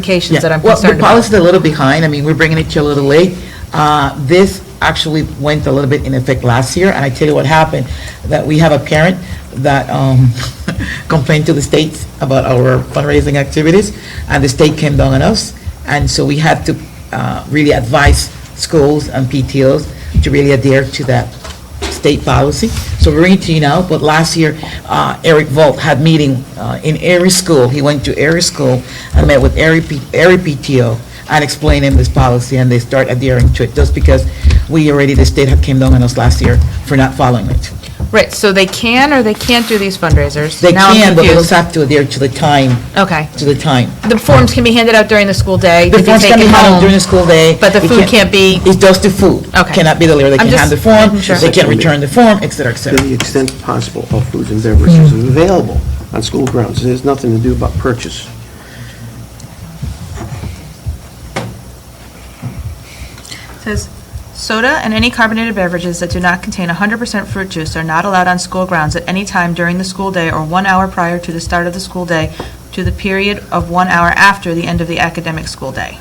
vacations that I'm Well, the concerned about. policy's a little behind, I mean, we're bringing it to you a little late. Uh, This actually went a little bit in effect last year, and I tell you what happened, that we have a parent that um, complained to the state about our fundraising activities, and the state came down on us, and so we had to uh, really advise schools and PTOs to really adhere to that state policy. So we're into, you now. but last year, uh, Eric Volk had meeting uh, in every school. He went to every school and met with every P- every PTO and explained him this policy, and they start adhering to it, just because we already, the state had came down on us last year for not following it. Right, so they can or they can't do these fundraisers? They Now I'm can, but they confused. also have to adhere to the time, Okay. to the time. The forms can be handed out during the school day, The can be forms can be taken handled home. during the school day. But the It food can't be- It's just the food. Okay. Cannot be delivered. They I'm can just have the form, making sure. they can return the form, et cetera, et to cetera. the extent possible, all foods and beverages available on school grounds. There's nothing to do about purchase. Says, soda and any carbonated beverages that do not contain 100% fruit juice are not allowed on school grounds at any time during the school day or one hour prior to the start of the school day to the period of one hour after the end of the academic school day.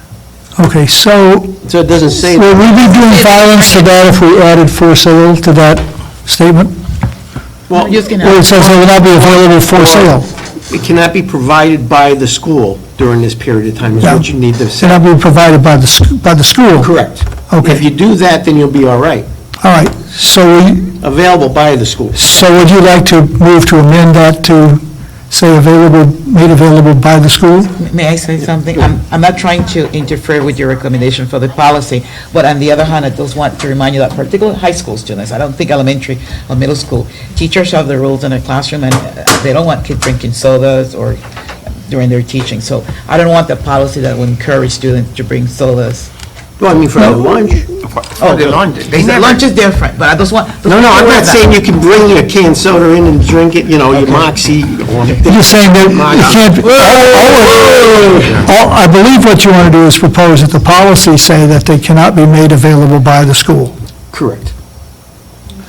Okay, so So it doesn't say, would we be doing violence to that if we added for sale to that statement? well, You're just gonna- Where it says it will not be available for sale, it cannot be provided by the school during this period of time, is what you need to it say. will not be provided by the, sc- by the school? Correct. If you Okay, do that, then you'll be all right. all right, so, we- Available by the school. so would you like to move to amend that to say available, made available by the school? May I say something? I'm, I'm not trying to interfere with your recommendation for the policy, but on the other hand, I just want to remind you that particularly high school students, I don't think elementary or middle school, teachers have the rules in their classroom, and uh, they don't want kids drinking sodas or during their teaching. So I don't want the policy that would encourage students to bring sodas. Well, I mean, for lunch. Oh, the lunch. Lunch is different, but I just want. No, no, I'm not saying you can bring your canned soda in and drink it, you know, your Moxie or... You're saying that you can't, all- all- all- I believe what you want to do is propose that the policy say that they cannot be made available by the school. Correct.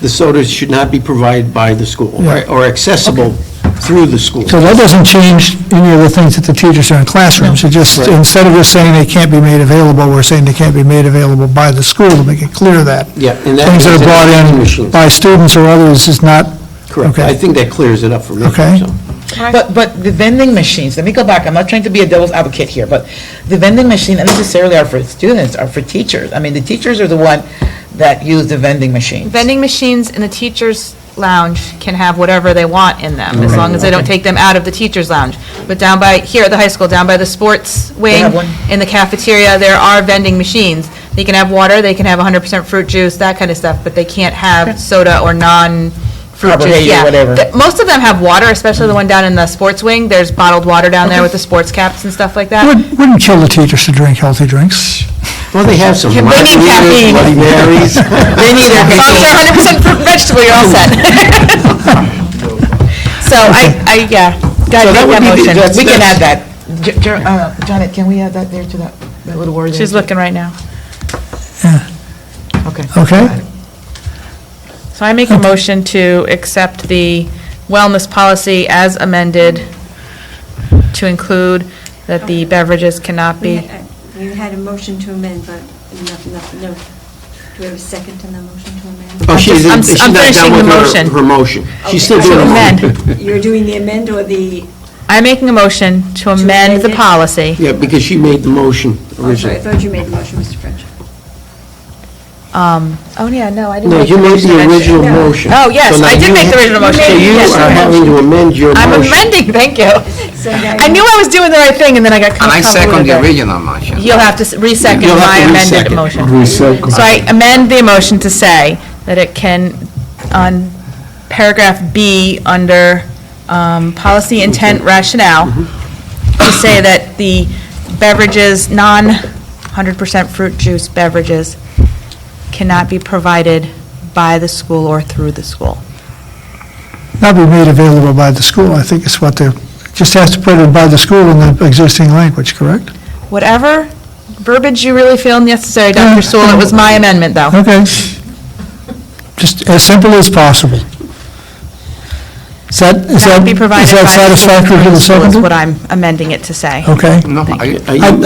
The sodas should not be provided by the school or- Yeah. or accessible through the school. So that doesn't change any of the things that the teachers are in classrooms. It just, Right. instead of just saying they can't be made available, we're saying they can't be made available by the school to make it clear that. Yeah, and that Things that means are in brought in machines. by students or others is not, Correct. Okay. I think that clears it up for me. Okay. so. But, but the vending machines, let me go back, I'm not trying to be a devil's advocate here, but the vending machine not necessarily are for students, are for teachers. I mean, the teachers are the one that use the vending machines. Vending machines in the teachers' lounge can have whatever they want in them, as long as they don't take them out of the teachers' lounge. But down by, here at the high school, down by the sports wing, have one? in the cafeteria, there are vending machines. They can have water, they can have 100% fruit juice, that kind of stuff, but they can't have soda or non-fruit juice. Carbonated, Yeah. whatever. Mm-hmm. Th- Most of them have water, especially the one down in the sports wing. There's bottled water down there with the sports caps and stuff like that. wouldn't wouldn't kill the teachers to drink healthy drinks. Well, they have some. Can bring in margaritas, caffeine. Bloody Marys. Oh, They need their As long as they're 100% fruit and vegetable, you're all set. So I, I, yeah, God, So that make would that be the- motion. that's- We can add that's- that. J- Jer- uh, Janet, can we add that there to that, that little word? there? She's looking right now. Okay. Okay. So I make a motion to accept the wellness policy as amended to include that the beverages cannot We be, had- uh, You had a motion to amend, but no, no, no. Do we have a second on the motion to amend? Oh, she just- I'm didn't- s- she's I'm not finishing done the with motion. her, her motion. She's still Okay. doing her amend. motion. You're doing the amend or the, I'm making a motion to amend amend the it? policy. Yeah, because she made the motion oh, sorry, I originally. thought you made the motion, Mr. French. Um, oh, yeah, no, I didn't No, make you the made motion. the I mentioned- original No. motion. Oh, yes, So now I did you make the ha- original motion. So you Yes, are I having to amend your motion. I'm amending, thank you. So I knew I was doing the right thing, and then I got And I second convoluted the there. original motion. You'll have to s- resecond You'll have my to amended resecond. motion. Resecond. So I amend the motion to say that it can, on paragraph B, under um, policy intent rationale, Mm-hmm. to say that the beverages, non 100% fruit juice beverages cannot be provided by the school or through the school. Not be made available by the school, I think is what they're, just has to put it by the school in the existing language, correct? Whatever verbiage you really feel necessary, Yeah. Dr. Sewell, it was my amendment, though. Okay. Just as simple as possible. Is that, is That that would be is provided by that the satisfactory to superintendent the of schools, second? what I'm amending it to say. Okay. No, I- I- I-